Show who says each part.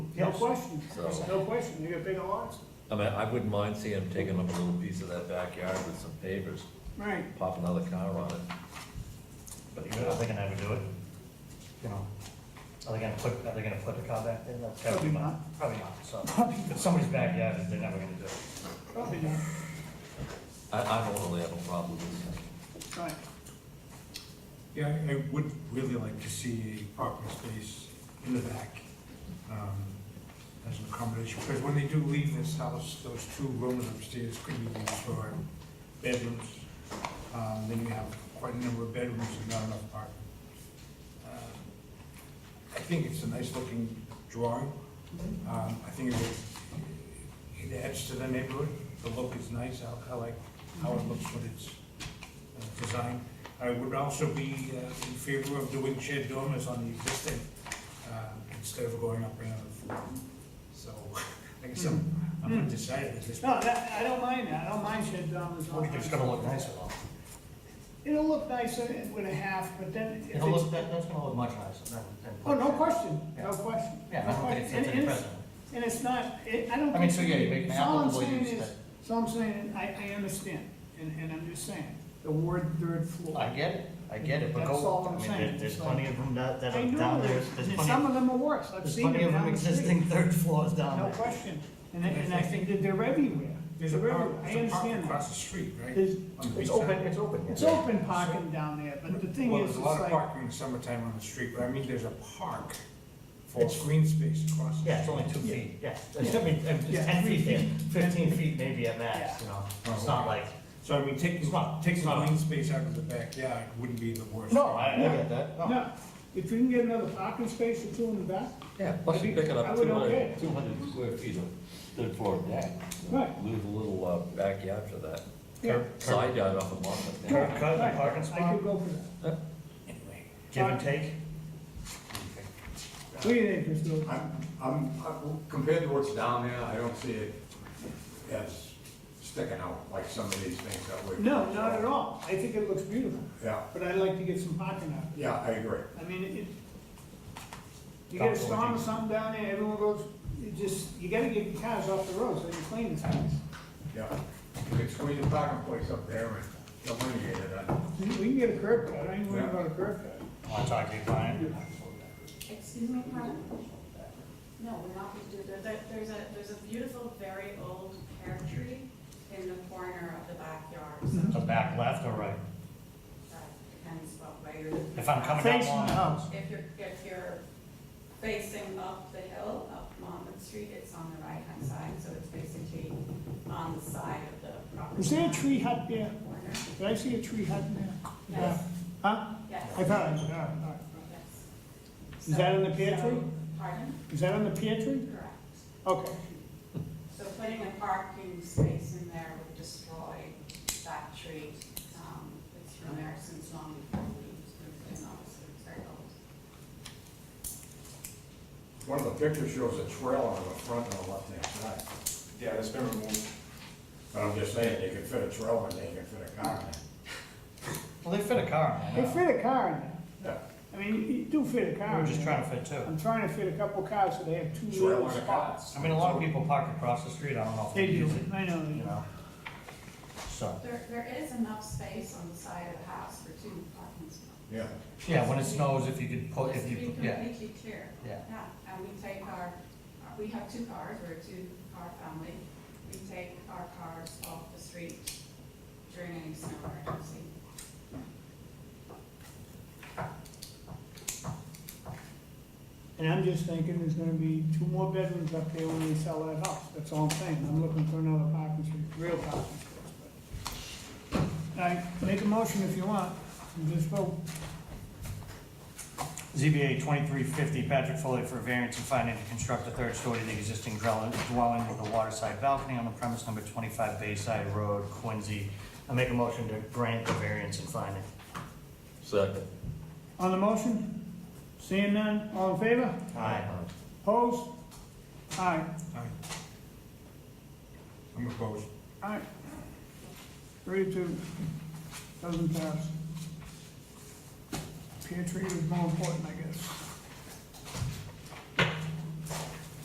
Speaker 1: No question,
Speaker 2: So-
Speaker 1: no question, you got bigger lots.
Speaker 2: I mean, I wouldn't mind seeing them taking up a little piece of that backyard with some pavers,
Speaker 1: Right.
Speaker 2: pop another car on it. But,
Speaker 3: You know, Are they gonna ever do it? You know, are they gonna put, are they gonna put the car back there? That's gotta be
Speaker 1: Probably
Speaker 3: my-
Speaker 1: not.
Speaker 3: Probably not, so. If somebody's backyard, they're never gonna do it.
Speaker 1: Probably not,
Speaker 2: I, I don't really have a problem with that.
Speaker 1: right.
Speaker 4: Yeah, I- I would really like to see a parking space in the back um, as an accommodation, because when they do leave this house, those two rooms upstairs could be used for bedrooms. Um, Then you have quite a number of bedrooms and not enough parking. Um, I think it's a nice-looking drawing. Um, I think it would- it adds to the neighborhood. The look is nice. I- I like how it looks when it's uh, designed. I would also be uh, in favor of doing shared dormers on the existing, uh, instead of going up another floor. So, I guess I'm, I'm undecided at this point.
Speaker 1: No, that, I don't mind that, I don't mind shed dormers on.
Speaker 3: It's gonna look nicer though.
Speaker 1: It'll look nicer with a half, but then if
Speaker 3: It'll look,
Speaker 1: it's,
Speaker 3: that, that's gonna look much nicer than, than.
Speaker 1: oh, no question, no
Speaker 3: Yeah.
Speaker 1: question.
Speaker 3: Yeah,
Speaker 1: no
Speaker 3: I don't
Speaker 1: question.
Speaker 3: think it's, it's
Speaker 1: And- and
Speaker 3: impressive.
Speaker 1: And it's not, it, I don't.
Speaker 3: I mean, so, yeah, you
Speaker 1: think-
Speaker 3: make an
Speaker 1: so all I'm
Speaker 3: applicable
Speaker 1: saying
Speaker 3: use
Speaker 1: is-
Speaker 3: that-
Speaker 1: So I'm saying, I, I understand, and, and I'm just saying, the word third floor.
Speaker 3: I get it, I get it, but
Speaker 1: That's all
Speaker 3: go,
Speaker 1: I'm
Speaker 3: I mean,
Speaker 1: saying.
Speaker 3: there- there's plenty of them that, that
Speaker 1: I
Speaker 3: are
Speaker 1: know,
Speaker 3: down there, there's
Speaker 1: and
Speaker 3: plenty,
Speaker 1: some
Speaker 3: of-
Speaker 1: of them are worse, I've
Speaker 3: there's
Speaker 1: seen
Speaker 3: plenty
Speaker 1: them
Speaker 3: of them
Speaker 1: down the street.
Speaker 3: existing third floors down
Speaker 1: No
Speaker 3: there.
Speaker 1: question, and, I- and I think that they're everywhere,
Speaker 4: Um, There's a
Speaker 1: They're
Speaker 4: park,
Speaker 1: everywhere. I
Speaker 4: there's a park
Speaker 1: understand that.
Speaker 4: across the street, right?
Speaker 1: There's,
Speaker 4: On the beach
Speaker 3: It's
Speaker 4: side.
Speaker 3: open, it's open.
Speaker 1: it's open parking down there, but the thing
Speaker 4: Well,
Speaker 1: is,
Speaker 4: there's
Speaker 1: it's
Speaker 4: a lot of
Speaker 1: like,
Speaker 4: parking in the summertime on the street, but I mean, there's a park for
Speaker 3: It's-
Speaker 4: green space across. the
Speaker 3: Yeah, it's
Speaker 4: street.
Speaker 3: only two
Speaker 1: Yeah.
Speaker 3: feet, yeah, it's, I mean,
Speaker 1: Yeah.
Speaker 3: it's ten feet, there, fifteen feet maybe at max, you know,
Speaker 1: Oh,
Speaker 3: it's not like,
Speaker 4: So I mean, taking,
Speaker 3: It's not-
Speaker 4: taking
Speaker 3: it's
Speaker 4: the
Speaker 3: not-
Speaker 4: green space out of the backyard wouldn't be the worst.
Speaker 3: no, I, I get that, no.
Speaker 1: no, if you can get another parking space or two in the back,
Speaker 2: Yeah, plus you're picking
Speaker 1: I
Speaker 2: up
Speaker 1: would
Speaker 2: two
Speaker 1: okay.
Speaker 2: hundred, two hundred square feet of third floor deck.
Speaker 1: Right.
Speaker 2: Lose a little, uh, backyard for that,
Speaker 1: yeah.
Speaker 2: side yard off of Monmouth.
Speaker 3: Curb
Speaker 2: yeah.
Speaker 3: cut and parking
Speaker 1: I
Speaker 3: spot,
Speaker 1: could go for that.
Speaker 3: give and take,
Speaker 1: What do you think, Mr. Oakley?
Speaker 5: I'm, I'm, I- compared to what's down there, I don't see it as sticking out like some of these things that we.
Speaker 1: No, not at all, I think it looks beautiful,
Speaker 5: Yeah,
Speaker 1: but I'd like to get some parking out.
Speaker 5: yeah, I agree.
Speaker 1: I mean, it, you get a storm or something down there, everyone goes, you just, you gotta get your cars off the road so you can clean this house.
Speaker 5: Yeah. You could squeeze a parking place up there and eliminate it. I-
Speaker 1: We we can get a curb cut, I ain't worried about a curb cut.
Speaker 3: I'll talk to you, Brian.
Speaker 6: Excuse me, pardon? No, we're not going to do that. There- There's a, there's a beautiful, very old pear tree in the corner of the backyard, so
Speaker 3: the back left or right?
Speaker 1: Mm-hmm.
Speaker 6: that depends what way you're.
Speaker 3: If I'm coming down
Speaker 1: Facing
Speaker 3: Long
Speaker 1: the house.
Speaker 6: If you're, if you're facing up the hill, up Monmouth Street, it's on the right-hand side, so it's basically on the side of the property.
Speaker 1: Is there a
Speaker 6: line.
Speaker 1: tree hut there?
Speaker 6: Corner.
Speaker 1: Did I see a tree hut in there?
Speaker 6: Yes,
Speaker 1: Huh?
Speaker 6: yes.
Speaker 1: I thought, I- all right, all right.
Speaker 6: Yes.
Speaker 1: Is that in the pear
Speaker 6: So- so-
Speaker 1: tree?
Speaker 6: Pardon?
Speaker 1: Is that on the pear tree?
Speaker 6: Correct.
Speaker 1: Okay.
Speaker 6: So putting a parking space in there would destroy that tree. Um, It's been there since long before we moved in, obviously, it's very old.
Speaker 5: One of the pictures shows a trail on the front and the left-hand side.
Speaker 7: Yeah, that's been removed.
Speaker 5: But I'm just saying, you could fit a trail in there, you could fit a car in there.
Speaker 3: Well, they fit a car in
Speaker 1: They
Speaker 3: there. now.
Speaker 1: fit a car in there. I mean, you- you do fit a car
Speaker 3: We
Speaker 1: in
Speaker 3: were
Speaker 1: there.
Speaker 3: just trying to fit two.
Speaker 1: I'm trying to fit a couple cars so they have two
Speaker 5: Trail
Speaker 1: little
Speaker 5: on a car.
Speaker 1: spots.
Speaker 3: I mean, a lot of people park across the street, I don't know if
Speaker 1: They
Speaker 3: they
Speaker 1: do,
Speaker 3: use it,
Speaker 1: I know. they
Speaker 3: you
Speaker 1: do.
Speaker 3: know? So,
Speaker 6: There, there is enough space on the side of the house for two parking spots.
Speaker 5: Yeah.
Speaker 3: yeah, when it snows, if you could put,
Speaker 6: Just
Speaker 3: if
Speaker 6: to be
Speaker 3: you, yeah,
Speaker 6: completely clear.
Speaker 3: Yeah.
Speaker 6: and we take our, we have two cars, we're a two-car family. We take our cars off the street during any snow emergency.
Speaker 1: And I'm just thinking there's gonna be two more bedrooms up there when they sell that house, that's all I'm saying, I'm looking for another parking space, real parking space. but- All right, make a motion if you want, and just vote.
Speaker 3: ZBA twenty-three fifty, Patrick Foley for variance and finding to construct a third story to the existing dwelling, dwelling with a waterside balcony on the premise number twenty-five Bayside Road, Quincy. I make a motion to grant the variance and finding.
Speaker 2: Second.
Speaker 1: On the motion, seeing none, all in favor,
Speaker 3: Aye.
Speaker 1: opposed? All right,
Speaker 4: Aye. I'm opposed.
Speaker 1: all right. Three to two, doesn't pass. Pear tree was more important, I guess.